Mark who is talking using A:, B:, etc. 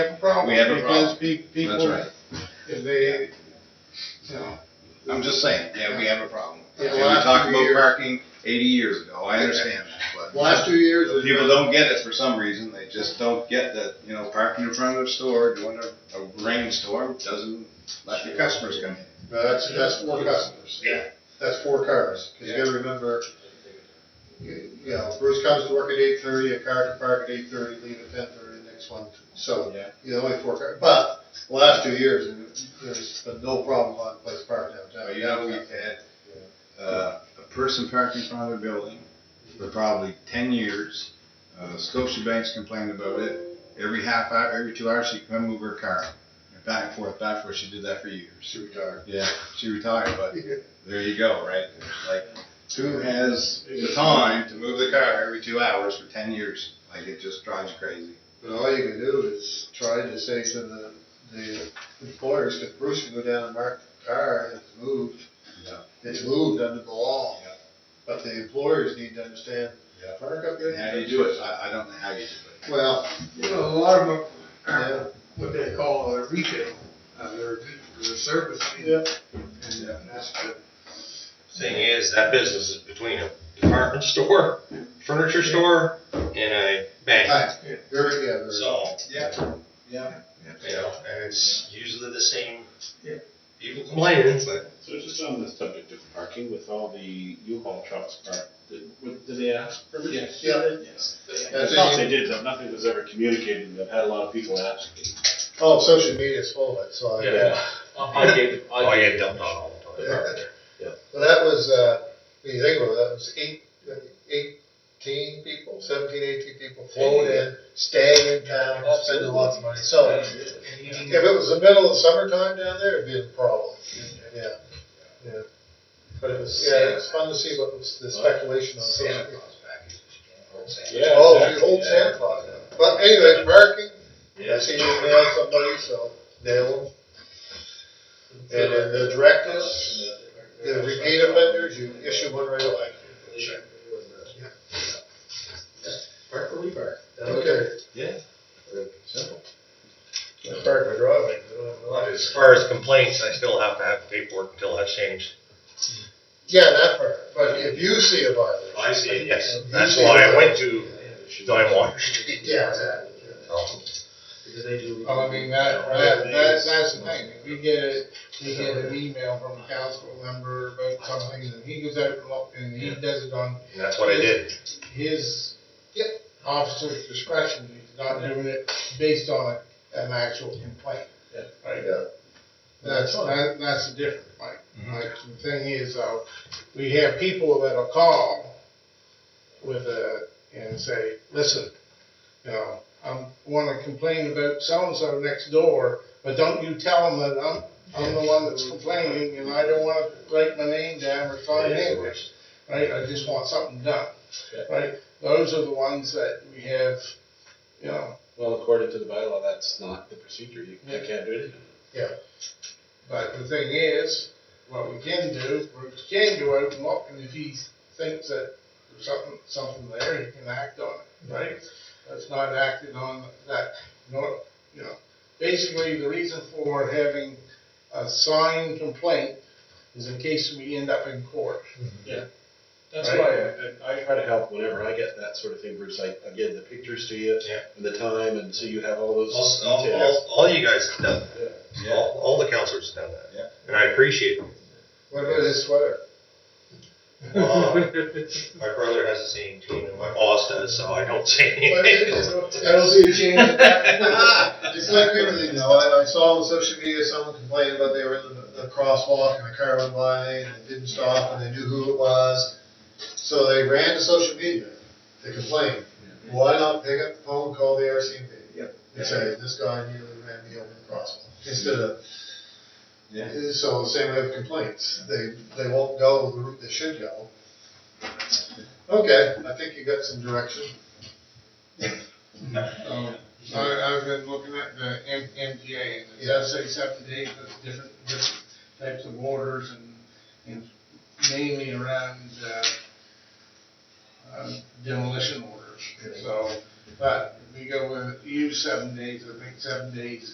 A: have a problem.
B: We have a problem.
A: because pe-
B: That's
A: People,
B: right.
A: if they, you know,
B: I'm just saying, yeah, we have a problem.
C: Yeah,
B: And we
C: last
B: talked
C: few
B: about
C: years-
B: parking eighty years ago, I understand that, but
C: Last two years. has
B: people
C: been-
B: don't get it for some reason, they just don't get that, you know, parking in front of the store during a, a rainstorm doesn't let your customers come in.
C: No, that's, that's four customers.
B: Yeah.
C: That's four cars, cause you gotta remember, you you know, Bruce comes to work at eight thirty, a car can park at eight thirty, leave at ten thirty, next one, so,
B: Yeah.
C: you know, only four cars. But, the last two years, there's been no problem on place park
B: Uh,
C: downtown.
B: You know, we've had, uh, a person parked in front of a building for probably ten years. Uh, Scotia Banks complained about it. Every half hour, every two hours, she'd come move her car back and forth, back and forth. She did that for years.
C: She retired.
B: Yeah, she retired, but there you go, right? Like, who
C: Two.
B: has the time to move the car every two hours for ten years? Like, it just drives you crazy.
C: But all you can do is try to say to the, the employers, if Bruce can go down and mark the car, it's moved.
B: Yeah.
C: It's moved under the law.
B: Yeah.
C: But the employers need to understand,
B: Yeah.
C: park up there.
B: How do you do it? I, I don't know how you do
C: Well,
A: you know, a lot of them
C: yeah,
A: are what they call a retail, uh, they're, they're service.
C: Yeah.
A: And uh, that's the,
D: Thing is, that business is between a department store, furniture store, and a bank.
C: hi, very, yeah, very.
D: So,
B: it. Yeah, yeah.
D: you know, and it's usually the same
A: Yeah.
D: people complaining, but
E: So just on the subject of parking, with all the U-Haul trucks parked, did, what- did they ask permission? Yes.
C: Yeah,
E: Yes. I
C: that's
E: thought
C: it.
E: they did, but nothing was ever communicated, that had a lot of people asking.
C: Oh, social media's full of it, so I.
E: Yeah.
F: I get,
D: oh,
F: I
D: yeah,
F: get
D: dumped
F: dumped
D: on
F: on.
D: all the time.
C: Yeah. Well, that was, uh, when you think about it, that was eight, eighteen people, seventeen, eighteen people flown in, staying in town, spending lots of money, so.
E: Mm-hmm.
C: If it was the middle of summertime down there, it'd be a problem, yeah, yeah. But it was, yeah, it was fun to see what was the speculation on social media.
E: Yeah,
C: Oh, the
E: exactly,
C: old
E: yeah.
C: Santa Claus. But anyway, parking, I see you nailed somebody, so nail them. And then the directors, the repeat offenders, you issue one right away.
F: Park or we park?
C: Okay.
D: Yeah.
C: Simple. I park my driveway. I don't have a lot.
D: As far as complaints, I still have to have paperwork until that's changed.
C: Yeah, that part, but if you see a violation.
D: I see it, yes.
C: if you
D: That's
C: see
D: why
C: a
D: I went to Don Water
C: violation-
D: Street.
C: Yeah, exactly.
D: So,
F: Because they do.
A: Well, Oh, I mean, that, that, that, that's the thing, if we get, a- we get an email from a council member about something, and he goes out and look, and he does it on
D: And that's what I did.
A: his
C: Yep.
A: officer's discretion, he's not doing it based on an actual complaint.
F: Yeah.
A: Right?
C: Yeah.
A: That's, that, that's the difference, Mike. Like, the thing is, uh, we have people that'll call with a, and say, listen, you know, I wanna complain about so-and-so next door, but don't you tell them that I'm, I'm the one that's complaining, and I don't wanna write my name down or sign in, right? I just want something done,
E: Yeah.
A: right? Those are the ones that we have, you know,
E: Well, according to the bylaw, that's not the procedure, you
A: you
E: can't do it.
A: But the thing is, what we can do, we can go out and look, and if he thinks that there's something, something there, he can act on it, right? That's not acted on that, nor, you know, basically, the reason for having a signed complaint is in case we end up in court.
E: That's
A: Right.
E: why I, I try to help whenever I get that sort of thing, Bruce, like, I get the pictures to you,
D: Yeah.
E: and the time, and so you have all those
D: All, all,
E: details.
D: all- all you guys have done, that.
B: Yeah,
D: all, all the counselors have done that.
B: Yeah.
D: And I appreciate it.
C: What about his sweater?
D: Uh, My brother has the same team, and my boss does, so I don't say
C: Well,
D: anything.
C: it- I don't see a change. in that. It's like everything though, I, I saw on social media, someone complained about they were in the, the crosswalk and a car went by and it didn't stop and they knew who it was. So they ran to social media to complain. Why not pick up the phone, call the RCMP?
B: Yep.
C: And say, this guy nearly ran me over in the crosswalk, instead of,
B: yeah.
C: so the same way with complaints, they, they won't go the route they should go. Okay, I think you got some direction.
A: So, I, I've been looking at the M, MGA, and it does say seven days, but different, different types of orders and, and mainly around, uh, uh, demolition orders, so, but
C: we go with, use seven days, I think seven days